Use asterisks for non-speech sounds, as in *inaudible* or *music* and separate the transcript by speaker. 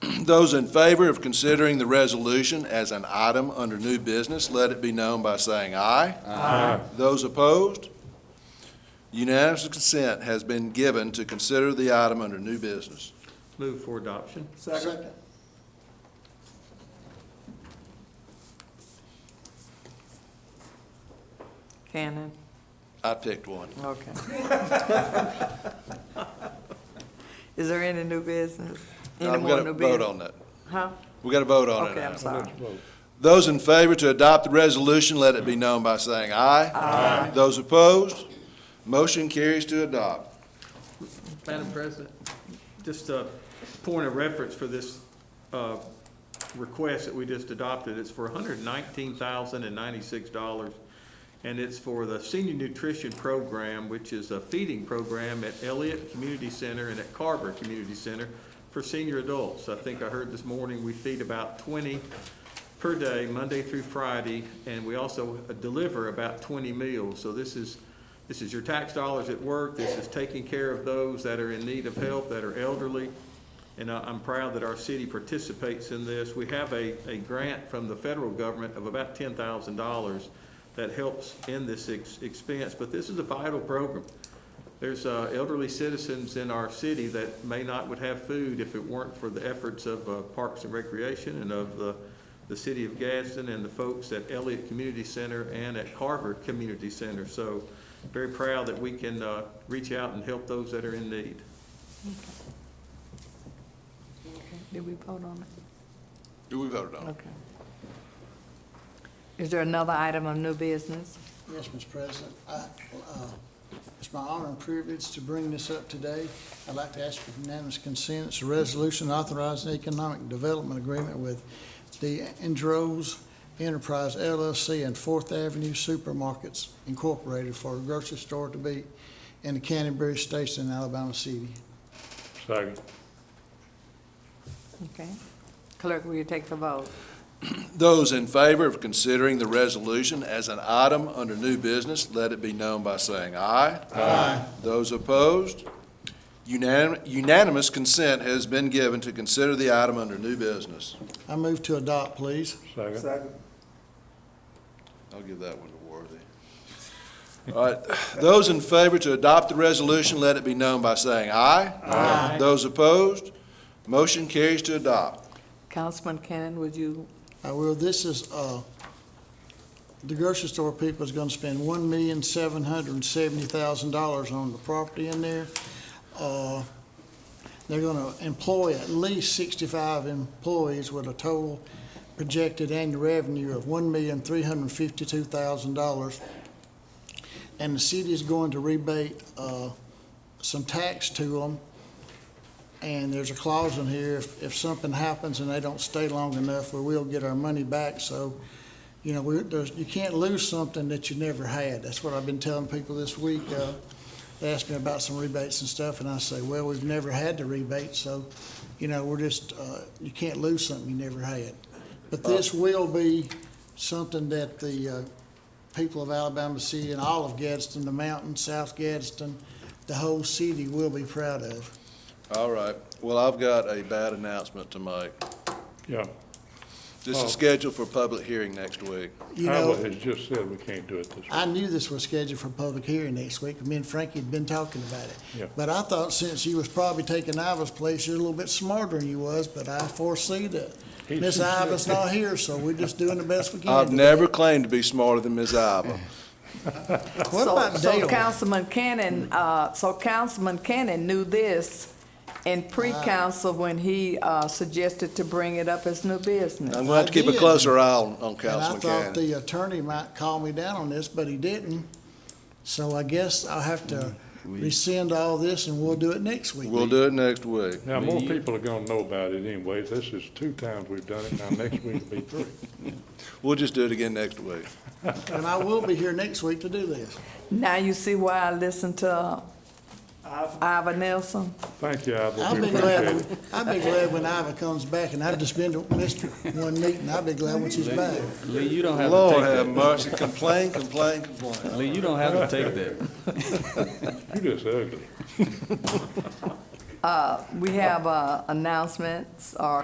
Speaker 1: Those in favor of considering the resolution as an item under new business, let it be known by saying aye. Aye. Those opposed? Unanimous consent has been given to consider the item under new business.
Speaker 2: Move for adoption.
Speaker 3: Second.
Speaker 4: Cannon,
Speaker 1: I picked one.
Speaker 4: okay. *laughs* Is there any new business? Any
Speaker 1: I'm
Speaker 4: more
Speaker 1: going to
Speaker 4: new
Speaker 1: vote
Speaker 4: business?
Speaker 1: on that.
Speaker 4: Huh?
Speaker 1: We got to vote on it
Speaker 4: Okay,
Speaker 1: now.
Speaker 4: I'm sorry.
Speaker 1: Those in favor to adopt the resolution, let it be known by saying aye. Aye. Those opposed, motion carries to adopt.
Speaker 2: Madam President, just a point of reference for this uh, request that we just adopted. It's for $119,096, and it's for the senior nutrition program, which is a feeding program at Elliott Community Center and at Carver Community Center for senior adults. I think I heard this morning, we feed about 20 per day, Monday through Friday, and we also deliver about 20 meals. So this is, this is your tax dollars at work, this is taking care of those that are in need of help, that are elderly, and I- I'm proud that our city participates in this. We have a, a grant from the federal government of about $10,000 that helps in this ex- expense, but this is a vital program. There's uh, elderly citizens in our city that may not would have food if it weren't for the efforts of uh, Parks and Recreation and of the, the city of Gadsden and the folks at Elliott Community Center and at Harvard Community Center. So very proud that we can uh, reach out and help those that are in need.
Speaker 4: Did we vote on it?
Speaker 1: We voted on it.
Speaker 4: Okay. Is there another item of new business?
Speaker 3: Yes, Mr. President, I, uh, it's my honor and privilege to bring this up today. I'd like to ask for unanimous consent, it's a resolution authorizing economic development agreement with the Andros Enterprise LLC and Fourth Avenue Supermarkets Incorporated for a grocery store to be in the Canterbury Station in Alabama City.
Speaker 5: Second.
Speaker 4: Okay. Clerk, will you take the vote?
Speaker 1: Those in favor of considering the resolution as an item under new business, let it be known by saying aye. Aye. Those opposed, unanim- unanimous consent has been given to consider the item under new business.
Speaker 3: I move to adopt, please.
Speaker 5: Second.
Speaker 1: I'll give that one to Worthy. All right, those in favor to adopt the resolution, let it be known by saying aye. Aye. Those opposed, motion carries to adopt.
Speaker 4: Councilman Cannon, would you,
Speaker 3: I will, this is, uh, the grocery store people is gonna spend one million, seven hundred and seventy thousand dollars on the property in there. Uh, They're gonna employ at least sixty-five employees with a total projected annual revenue of one million, three hundred and fifty-two thousand dollars. And the city is going to rebate, uh, some tax to them and there's a clause in here, if, if something happens and they don't stay long enough, we will get our money back, so, you know, we, there's, you can't lose something that you never had, that's what I've been telling people this week, uh, they asked me about some rebates and stuff, and I say, well, we've never had the rebate, so, you know, we're just, uh, you can't lose something you never had. But this will be something that the, uh, people of Alabama City and all of Gadsden, the mountain, South Gadsden, the whole city will be proud of.
Speaker 1: All right, well, I've got a bad announcement to make.
Speaker 5: Yeah,
Speaker 1: This
Speaker 5: Oh.
Speaker 1: is scheduled for public hearing next week.
Speaker 3: You
Speaker 5: Iowa
Speaker 3: know,
Speaker 5: has just said we can't do it this week.
Speaker 3: I knew this was scheduled for public hearing next week. Me and Frankie had been talking about it.
Speaker 5: Yeah.
Speaker 3: But I thought since you was probably taking Iva's place, you're a little bit smarter than you was, but I foresee that
Speaker 5: He's-
Speaker 3: Miss Iva's not here, so we're just doing the best we can.
Speaker 1: I've never claimed to be smarter than Ms. *laughs* Iva.
Speaker 3: What
Speaker 4: So-
Speaker 3: about
Speaker 4: So
Speaker 3: Dale?
Speaker 4: Councilman Cannon, uh, so Councilman Cannon knew this in pre-council when he, uh, suggested to bring it up as new business.
Speaker 1: I'm going to have to keep a closer eye on, on
Speaker 3: And I
Speaker 1: Councilman
Speaker 3: thought
Speaker 1: Cannon.
Speaker 3: the attorney might call me down on this, but he didn't. So I guess I'll have to rescind all this and we'll do it next week.
Speaker 1: We'll do it next week.
Speaker 5: Now, more people are gonna know about it anyway. This is two times we've done it, now next week will be three.
Speaker 1: We'll just do it again next week.
Speaker 3: And I will be here next week to do this.
Speaker 4: Now you see why I listen to Ivan Nelson?
Speaker 5: Thank you, Ivor,
Speaker 3: I'll
Speaker 5: we
Speaker 3: be
Speaker 5: appreciate
Speaker 3: glad,
Speaker 5: it.
Speaker 3: when- I'll be glad when Iva comes back, and I've just been to, missed one meeting, I'll be glad when she's back.
Speaker 6: Lee, you don't have
Speaker 1: Lord have
Speaker 6: to
Speaker 1: mercy, *laughs* complain, complain, complain.
Speaker 6: take that. Lee, you don't have to take that.
Speaker 5: You're just ugly.
Speaker 4: We have, uh, announcements or